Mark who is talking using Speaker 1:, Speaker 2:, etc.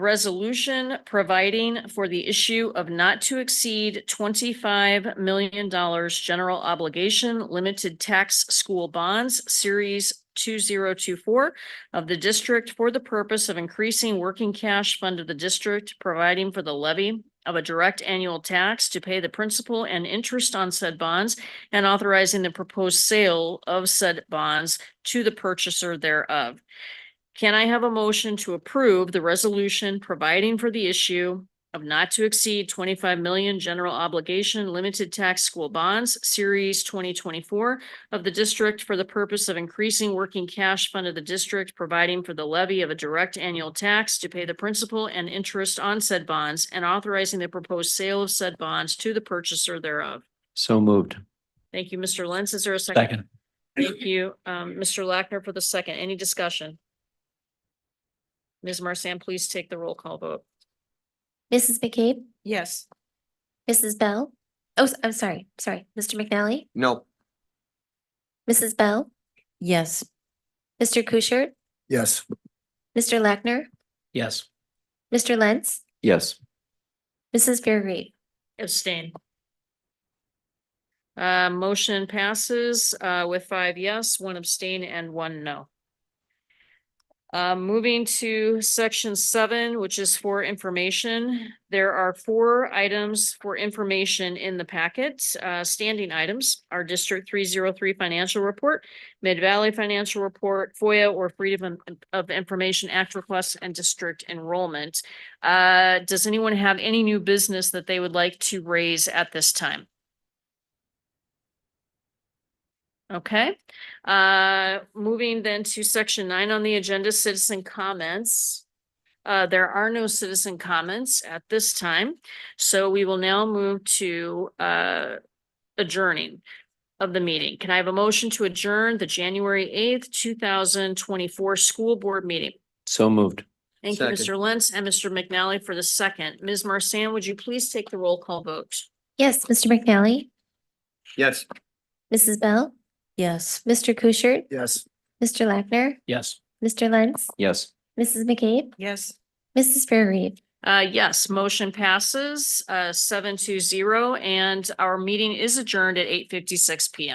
Speaker 1: resolution providing for the issue of not to exceed twenty-five million dollars general obligation limited tax school bonds, series two zero two four of the district for the purpose of increasing working cash fund of the district, providing for the levy of a direct annual tax to pay the principal and interest on said bonds and authorizing the proposed sale of said bonds to the purchaser thereof. Can I have a motion to approve the resolution providing for the issue of not to exceed twenty-five million general obligation limited tax school bonds, series twenty twenty-four of the district for the purpose of increasing working cash fund of the district, providing for the levy of a direct annual tax to pay the principal and interest on said bonds and authorizing the proposed sale of said bonds to the purchaser thereof.
Speaker 2: So moved.
Speaker 1: Thank you, Mr. Lentz. Is there a second?
Speaker 2: Second.
Speaker 1: Thank you, um, Mr. Lackner for the second. Any discussion? Ms. Marsan, please take the roll call vote.
Speaker 3: Mrs. McCabe,
Speaker 4: Yes.
Speaker 3: Mrs. Bell. Oh, s- I'm sorry, sorry, Mr. McNally,
Speaker 2: No.
Speaker 3: Mrs. Bell,
Speaker 4: Yes.
Speaker 3: Mr. Kuschert,
Speaker 2: Yes.
Speaker 3: Mr. Lackner,
Speaker 2: Yes.
Speaker 3: Mr. Lentz,
Speaker 2: Yes.
Speaker 3: Mrs. Fairgrave.
Speaker 1: Abstain. Uh, motion passes, uh, with five yes, one abstain and one no. Uh, moving to section seven, which is for information. There are four items for information in the packet. Uh, standing items are District three zero three financial report, Mid Valley financial report, FOIA or Freedom of Information Act requests and district enrollment. Uh, does anyone have any new business that they would like to raise at this time? Okay, uh, moving then to section nine on the agenda, citizen comments. Uh, there are no citizen comments at this time, so we will now move to, uh, adjourning of the meeting. Can I have a motion to adjourn the January eighth, two thousand twenty-four school board meeting?
Speaker 2: So moved.
Speaker 1: Thank you,
Speaker 2: Second.
Speaker 1: Mr. Lentz and Mr. McNally for the second. Ms. Marsan, would you please take the roll call vote?
Speaker 3: Yes, Mr. McNally,
Speaker 2: Yes.
Speaker 3: Mrs. Bell,
Speaker 4: Yes.
Speaker 3: Mr. Kuschert,
Speaker 2: Yes.
Speaker 3: Mr. Lackner,
Speaker 2: Yes.
Speaker 3: Mr. Lentz,
Speaker 2: Yes.
Speaker 3: Mrs. McCabe,
Speaker 4: Yes.
Speaker 3: Mrs. Fairgrave.
Speaker 1: Uh, yes, motion passes, uh, seven to zero, and our meeting is adjourned at eight fifty-six PM.